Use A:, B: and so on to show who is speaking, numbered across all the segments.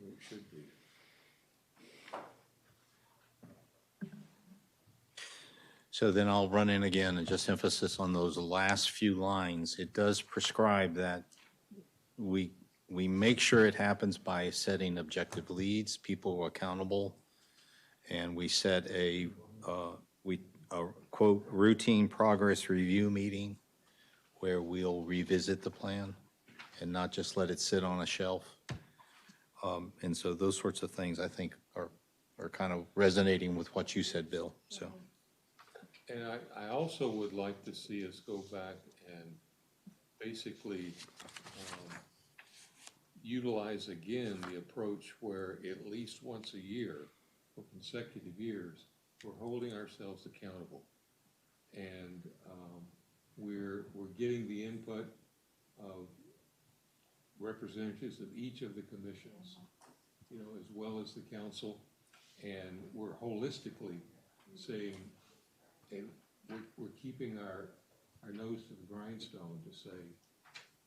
A: It should be.
B: So then I'll run in again and just emphasis on those last few lines. It does prescribe that we, we make sure it happens by setting objective leads, people are accountable, and we set a, uh, we, a quote, routine progress review meeting where we'll revisit the plan and not just let it sit on a shelf. Um, And so those sorts of things, I think, are, are kind of resonating with what you said, Bill, so.
A: And I, I also would like to see us go back and basically um, utilize again the approach where at least once a year, for consecutive years, we're holding ourselves accountable. And um, we're, we're getting the input of representatives of each of the commissions, you know, as well as the council. And we're holistically saying, and we're, we're keeping our, our nose to the grindstone to say,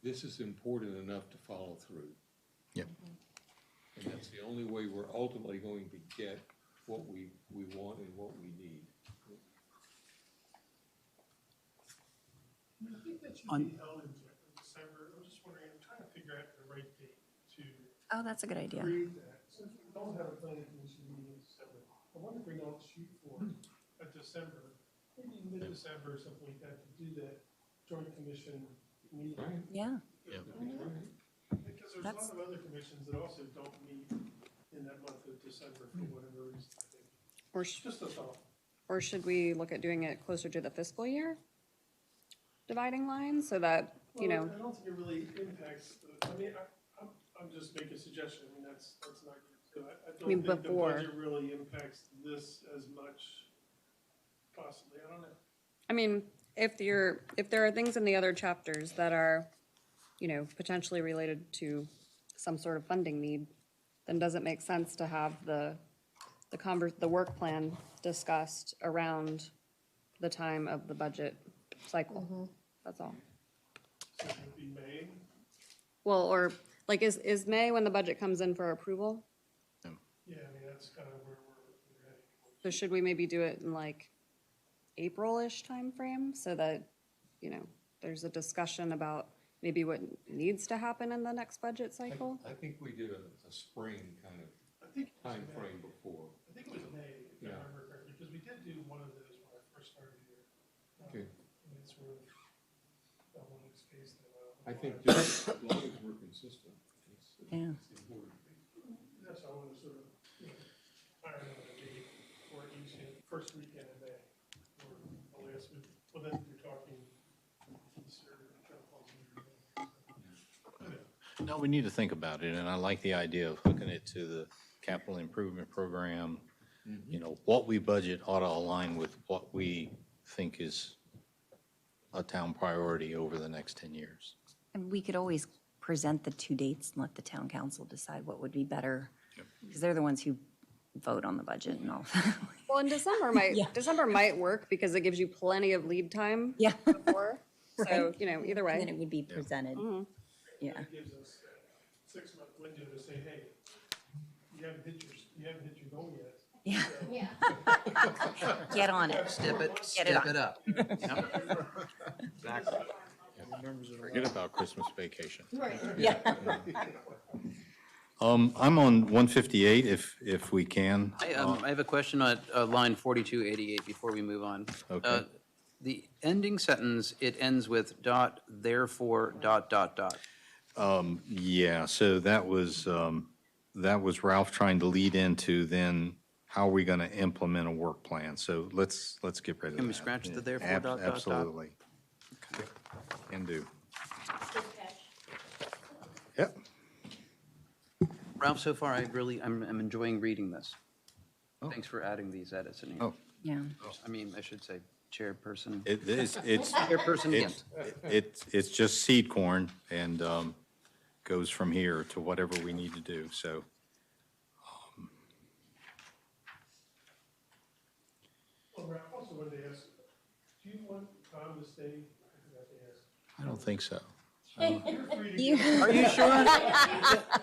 A: this is important enough to follow through.
B: Yep.
A: And that's the only way we're ultimately going to get what we, we want and what we need.
C: I think that's usually held in December, I'm just wondering, I'm trying to figure out the right date to
D: Oh, that's a good idea.
C: create that. Since we don't have a planning commission meeting in December, I wonder if we don't shoot for a December, maybe mid-December or something like that, to do that joint commission meeting.
A: Right?
D: Yeah.
B: Yeah.
C: Because there's a lot
D: That's-
C: of other commissions that also don't meet in that month of December for whatever reason, I think.
E: Or, sh-
C: Just a thought.
E: or should we look at doing it closer to the fiscal year? Dividing line so that, you
C: Well,
E: know,
C: I don't think it really impacts, the- I mean, I, I'm, I'm just making a suggestion, I mean, that's, that's not, so I, I don't
E: mean,
C: think the
E: before.
C: budget really impacts this as much, possibly, I don't know.
E: I mean, if you're, if there are things in the other chapters that are, you know, potentially related to some sort of funding need, then does it make sense to have the, the conver, the work plan discussed around the time of the budget cycle? That's all.
C: So it would be May,
E: Well, or, like, is, is May when the budget comes in for approval?
C: yeah, I mean, that's kind of where we're, we're heading.
E: So should we maybe do it in like April-ish timeframe so that, you know, there's a discussion about maybe what needs to happen in the next budget cycle?
A: I think we did a, a spring kind of
C: I think, it was
A: time
C: May.
A: frame before.
C: I think it was May, if I
A: Yeah.
C: remember correctly, because we did do one of those when I first started here. Um,
A: Okay.
C: And it's sort of, that one was phased in.
A: I think just as long as we're consistent, it's,
D: Yeah.
A: it's important.
C: That's how I want to sort of, you know, iron out the date, or each, first weekend in May, or the last week, well, then you're talking. Easter, John Paul's New Year.
B: No, we need to think about it, and I like the idea of hooking it to the capital improvement program. You know, what we budget ought to align with what we think is a town priority over the next 10 years.
D: And we could always present the two dates and let the town council decide what would be better. Because they're the ones who vote on the budget and all.
E: Well, in December might,
D: Yeah.
E: December might work because it gives you plenty of lead time
D: Yeah.
E: before. So,
D: Right.
E: you know, either
D: And then it
E: way.
D: would be presented. Yeah.
C: It gives us a six-month window to say, hey, you haven't hit your, you haven't hit your goal yet.
D: Yeah.
C: So-
D: Get on it.
F: Step it,
D: Get it
F: step it up. Exactly.
B: Forget about Christmas vacation.
G: Right.
D: Yeah.
B: Um, I'm on 158, if, if we can.
F: I, um, I have a question on, uh, line forty-two eighty-eight before we move on.
B: Okay.
F: Uh, The ending sentence, it ends with dot, therefore, dot, dot, dot.
B: Yeah, so that was, um, that was Ralph trying to lead into then how are we going to implement a work plan? So let's, let's get rid of that.
F: Can we scratch the therefore
B: Ab-
F: dot, dot, dot?
B: Absolutely. Can do. Yep.
F: Ralph, so far, I really, I'm, I'm enjoying reading this. Thanks for adding these edits in here.
B: Oh,
D: Yeah.
F: I mean, I should say chairperson.
B: it, it's, it's,
F: Chairperson
B: it's,
F: Gint.
B: it's, it's just seed corn and, um, goes from here to whatever we need to do, so.
C: Well, Ralph, also wanted to ask, do you want Tom to stay? I forgot to ask.
B: I don't think so.
C: You're free to go.
F: Are you sure?